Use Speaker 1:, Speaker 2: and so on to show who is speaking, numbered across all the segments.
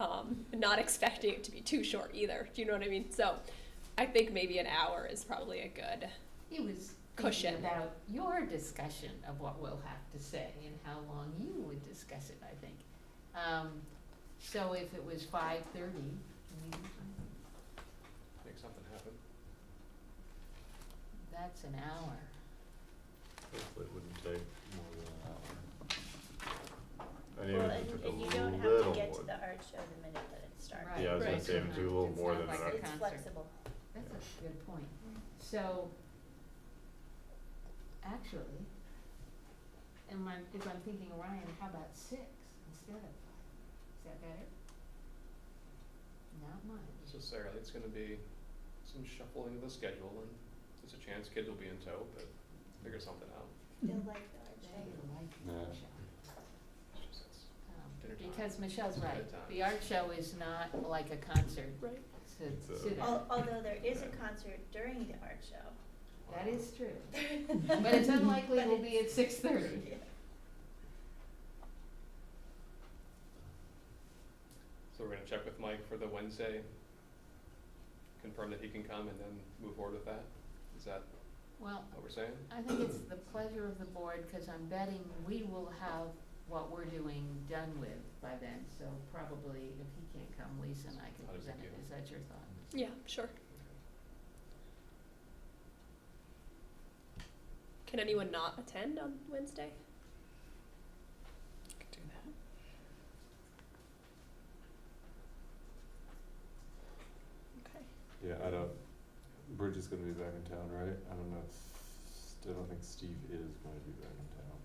Speaker 1: um, not expecting it to be too short either. Do you know what I mean? So I think maybe an hour is probably a good.
Speaker 2: He was
Speaker 1: Cushion.
Speaker 2: thinking about your discussion of what we'll have to say and how long you would discuss it, I think. Um, so if it was five thirty,
Speaker 3: Make something happen.
Speaker 2: that's an hour.
Speaker 4: Hopefully it wouldn't take more than an hour. I knew
Speaker 5: Well,
Speaker 4: it
Speaker 5: and,
Speaker 4: took
Speaker 5: and you
Speaker 4: a
Speaker 5: don't have to
Speaker 4: little
Speaker 5: get
Speaker 4: more.
Speaker 5: to the art show the minute that it starts.
Speaker 2: Right.
Speaker 4: Yeah, I was gonna
Speaker 1: Right.
Speaker 4: say, even do a little
Speaker 2: It's
Speaker 4: more
Speaker 2: not
Speaker 4: than
Speaker 2: like
Speaker 4: an
Speaker 2: a
Speaker 4: hour.
Speaker 5: It's
Speaker 2: concert.
Speaker 5: flexible. Mm-hmm.
Speaker 2: That's a good point. So, actually, am I, if I'm thinking Orion, how about six instead of five? Is that better? Not much.
Speaker 3: Necessarily, it's gonna be some shuffling of the schedule and there's a chance kids will be in tow, but figure something out.
Speaker 5: They'll like the art
Speaker 2: They
Speaker 5: show.
Speaker 2: like the
Speaker 4: Yeah.
Speaker 2: workshop.
Speaker 3: It's just, it's
Speaker 2: Um,
Speaker 3: Dinner time.
Speaker 2: Because Michelle's
Speaker 3: Dinner
Speaker 2: right,
Speaker 3: time.
Speaker 2: the art show is not like a concert,
Speaker 1: Right.
Speaker 2: it's a-
Speaker 4: It's a-
Speaker 2: sit down.
Speaker 5: Al- Although there is a concert during the art show.
Speaker 2: that is true. But it's unlikely we'll be at six thirty.
Speaker 3: So we're gonna check with Mike for the Wednesday, confirm that he can come and then move forward with that? Is that
Speaker 2: Well,
Speaker 3: what we're saying?
Speaker 2: I think it's the pleasure of the board, cause I'm betting we will have what we're doing done with by then, so probably if he can't come, Lisa and I can
Speaker 3: How does it
Speaker 2: present it,
Speaker 3: do?
Speaker 2: is that your thought?
Speaker 1: Yeah, sure. Can anyone not attend on Wednesday?
Speaker 6: Could do that.
Speaker 1: Okay.
Speaker 4: Yeah, I don't, Bridge is gonna be back in town, right? I don't know if, I don't think Steve is gonna be back in town.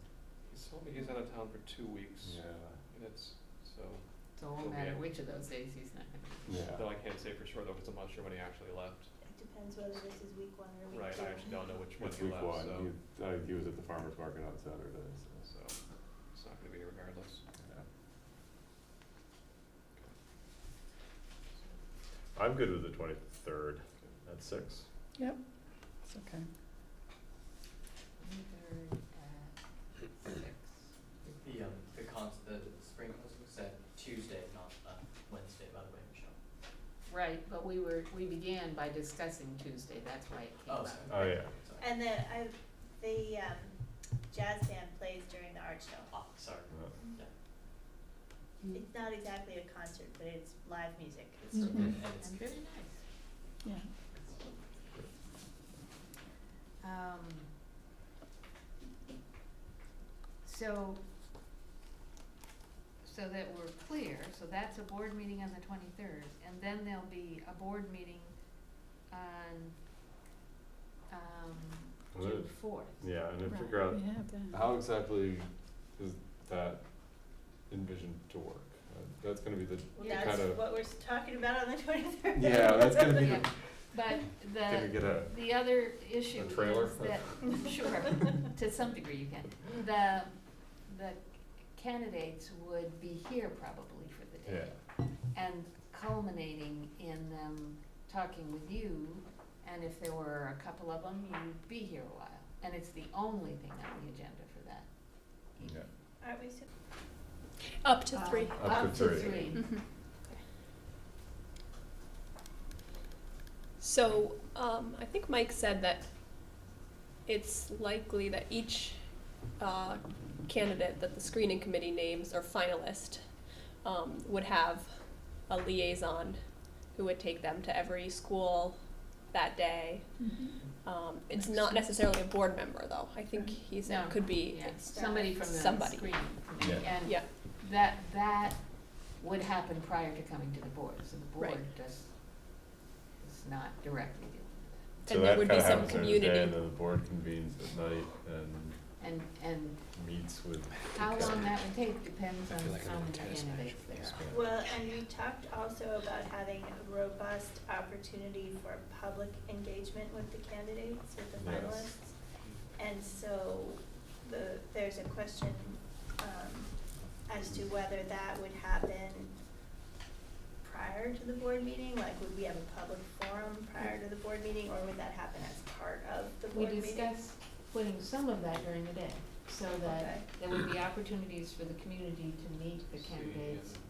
Speaker 3: He's told me he's out of town for two weeks
Speaker 4: Yeah,
Speaker 3: and it's, so,
Speaker 2: So it won't
Speaker 3: Okay.
Speaker 2: matter which of those days he's not gonna be.
Speaker 4: yeah.
Speaker 3: though I can't say for sure though, because I'm not sure when he actually left.
Speaker 5: It depends whether this is week one or
Speaker 3: Right,
Speaker 5: week two.
Speaker 3: I actually don't know which one
Speaker 4: It's
Speaker 3: he
Speaker 4: week
Speaker 3: left,
Speaker 4: one,
Speaker 3: so,
Speaker 4: he, I, he was at the farmer's market on Saturday,
Speaker 3: so
Speaker 4: so,
Speaker 3: it's not gonna be regardless.
Speaker 4: yeah. I'm good with the twenty-third at six.
Speaker 6: It's okay.
Speaker 2: Either at six.
Speaker 7: The, um, the cons, the spring festival is at Tuesday, not, uh, Wednesday, by the way, Michelle.
Speaker 2: Right, but we were, we began by discussing Tuesday, that's why it came
Speaker 7: Oh,
Speaker 2: up.
Speaker 7: sorry.
Speaker 4: Oh, yeah.
Speaker 7: Sorry.
Speaker 5: And the, I, the, um, jazz band plays during the art show.
Speaker 7: Oh, sorry.
Speaker 4: Uh,
Speaker 6: Mm-hmm.
Speaker 2: Mm.
Speaker 5: It's not exactly a concert, but it's live music.
Speaker 7: It's,
Speaker 4: Mm-hmm.
Speaker 7: and it's
Speaker 2: And
Speaker 7: good.
Speaker 2: very nice.
Speaker 6: Yeah.
Speaker 2: Um, so, so that we're clear, so that's a board meeting on the twenty-third, and then there'll be a board meeting on, um,
Speaker 4: Well,
Speaker 2: June fourth.
Speaker 4: Yeah, and then
Speaker 6: Right,
Speaker 4: figure out
Speaker 6: We have that.
Speaker 4: How exactly is that envisioned to work? Uh, That's gonna be the,
Speaker 5: Well,
Speaker 2: Yeah.
Speaker 5: that's
Speaker 4: Kinda-
Speaker 5: what we're s- talking about on the twenty-third.
Speaker 4: yeah, that's gonna be,
Speaker 2: Yeah,
Speaker 4: the-
Speaker 2: but
Speaker 4: gonna
Speaker 2: the,
Speaker 4: get a,
Speaker 2: the other issue
Speaker 4: a
Speaker 2: is
Speaker 4: trailer?
Speaker 2: that, sure, to some degree you can. The, the candidates would be here probably for the day.
Speaker 4: yeah,
Speaker 2: and culminating in them talking with you, and if there were a couple of them, you'd be here a while. And it's the only thing on the agenda for that.
Speaker 4: yeah.
Speaker 5: Aren't we, su-
Speaker 1: Up to three.
Speaker 2: Uh,
Speaker 4: Up to three.
Speaker 1: Mhm. So, um, I think Mike said that it's likely that each, uh, candidate that the screening committee names or finalist, um, would have a liaison who would take them to every school that day.
Speaker 2: Mm-hmm.
Speaker 1: Um, it's not necessarily a board member though, I think he said
Speaker 2: No.
Speaker 1: could be,
Speaker 2: Yeah, somebody from the
Speaker 1: Somebody.
Speaker 2: screening
Speaker 4: Yeah.
Speaker 2: committee, and
Speaker 1: Yeah.
Speaker 2: that, that would happen prior to coming to the board, so the board
Speaker 1: Right.
Speaker 2: does, is not directly dealing with
Speaker 4: So
Speaker 1: And there
Speaker 4: that
Speaker 1: would be
Speaker 4: kinda
Speaker 1: some
Speaker 4: happens during the day,
Speaker 1: community.
Speaker 4: And then the board convenes at night and
Speaker 2: that. And, and
Speaker 4: meets with. the
Speaker 2: how long
Speaker 4: candidate.
Speaker 2: that would take depends
Speaker 6: I
Speaker 2: on
Speaker 6: feel like I'm
Speaker 2: how
Speaker 6: on a
Speaker 2: many
Speaker 6: tennis
Speaker 2: candidates
Speaker 6: match.
Speaker 2: there are.
Speaker 5: well, and we talked also about having a robust opportunity for public engagement with the candidates, with the
Speaker 4: Yes.
Speaker 5: finalists. And so the, there's a question, um, as to whether that would happen prior to the board meeting, like would we have a public forum prior to the board meeting, or would that happen as part of the
Speaker 2: We
Speaker 5: board meeting?
Speaker 2: discussed putting some of that during the day, so that
Speaker 5: Okay.
Speaker 2: there would be opportunities for the community to meet the
Speaker 3: See,
Speaker 2: candidates
Speaker 3: and-